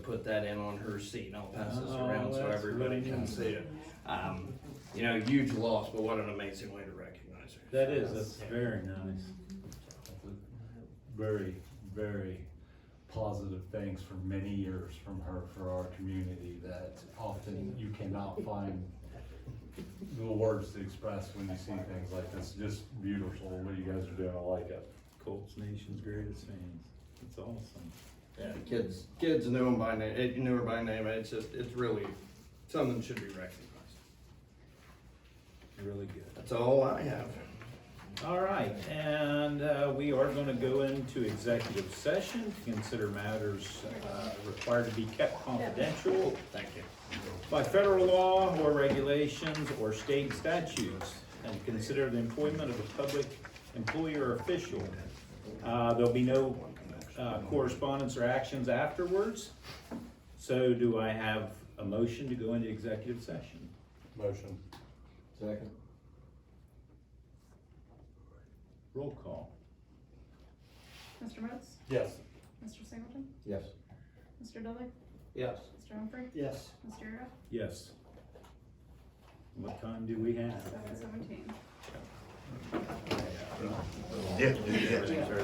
put that in on her seat and I'll pass this Oh, around so that's everybody really can nice. see it. Um, you know, huge loss, but what an amazing way to recognize her. That is, that's very nice. Very, very positive things for many years from her for our community that often you cannot find the words to express when you see things like this. Just beautiful, what you guys are doing, I like it. Colts Nation's greatest fans. It's awesome. Yeah, the kids, kids knew him by name, eh, knew her by name, and it's just, it's really, something that should be recognized. Really good. That's all I have. All right, and uh, we are going to go into executive session to consider matters uh, required to be kept confidential Thank you. by federal law or regulations or state statutes, and consider the employment of a public employee or official. Uh, There'll be no uh, correspondence or actions afterwards. So do I have a motion to go into executive session? Motion. Second. Roll call. Mr. Moats? Yes. Mr. Singleton? Yes. Mr. Dudley? Yes. Mr. Humphrey? Yes. Mr. Euro? Yes. What time do we have? Seven seventeen. Everything's early.